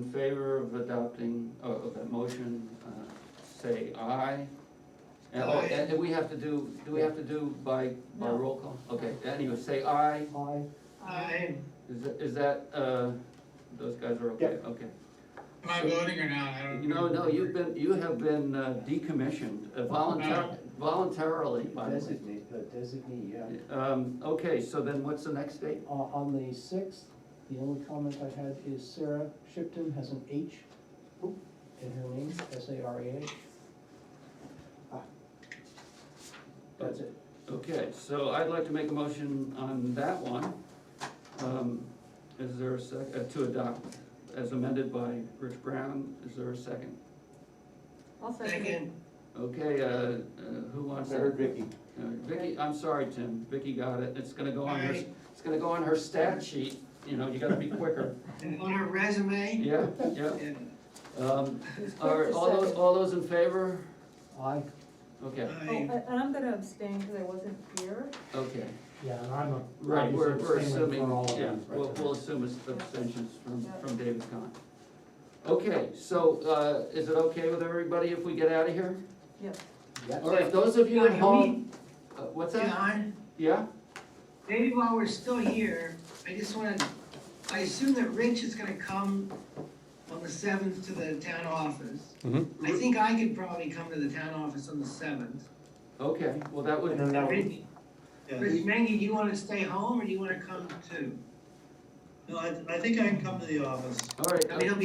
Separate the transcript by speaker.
Speaker 1: In favor of adopting, of of that motion, uh, say aye. And, oh,
Speaker 2: Aye.
Speaker 1: and do we have to do, do we have to do by, by
Speaker 3: No.
Speaker 1: roll call? Okay, anyway, say aye.
Speaker 4: Aye.
Speaker 2: Aye.
Speaker 1: Is, that- is that, uh, those guys are okay, okay.
Speaker 2: Am I voting or not? I don't.
Speaker 1: No, no, you've been, you have been uh, decommissioned uh, voluntar-
Speaker 2: No.
Speaker 1: voluntarily, by the way.
Speaker 4: Designate, uh, designee, yeah.
Speaker 1: Um, okay, so then what's the next date?
Speaker 4: Uh, on the sixth, the only comment I had is Sarah Shipton has an H in her name, S A R A H. That's it.
Speaker 1: Okay, so I'd like to make a motion on that one. Um, Is there a sec, uh, to adopt as amended by Rich Brown, is there a second?
Speaker 3: I'll second it.
Speaker 2: Second.
Speaker 1: Okay, uh, uh, who wants
Speaker 5: Third,
Speaker 1: it?
Speaker 5: Vicky.
Speaker 1: Uh, Vicky, I'm sorry, Tim, Vicky got it, it's gonna go on her, it's gonna go on her stat sheet, you know, you gotta be quicker.
Speaker 2: And on her resume?
Speaker 1: Yeah, yeah.
Speaker 2: And,
Speaker 1: Um,
Speaker 3: Who's quick
Speaker 1: All right,
Speaker 3: to
Speaker 1: all those,
Speaker 3: second?
Speaker 1: all those in favor?
Speaker 4: Aye,
Speaker 1: Okay,
Speaker 3: Oh,
Speaker 2: aye.
Speaker 3: And and I'm gonna abstain because I wasn't here.
Speaker 1: okay.
Speaker 6: Yeah, and I'm a.
Speaker 1: Right, we're, we're
Speaker 6: obviously
Speaker 1: assuming,
Speaker 6: abstaining for all of
Speaker 1: yeah,
Speaker 6: these right
Speaker 1: we'll,
Speaker 6: now.
Speaker 1: we'll assume it's abstentions from,
Speaker 3: Yeah.
Speaker 1: from David Kahn. Okay, so, uh, is it okay with everybody if we get out of here?
Speaker 3: Yes.
Speaker 4: yes.
Speaker 1: All right, those of you at home, uh, what's that?
Speaker 2: John,
Speaker 1: Yeah?
Speaker 2: maybe while we're still here, I just wanna, I assume that Rich is gonna come on the seventh to the town office. I think I could probably come to the town office on the seventh.
Speaker 1: Okay, well, that
Speaker 5: And
Speaker 1: would,
Speaker 5: then that would,
Speaker 2: Rich,
Speaker 5: yeah,
Speaker 2: Rich Mengy, do you wanna stay home or do you wanna come too?
Speaker 7: No, I, I think I can come to the office.
Speaker 1: all right.
Speaker 2: I mean, it'll be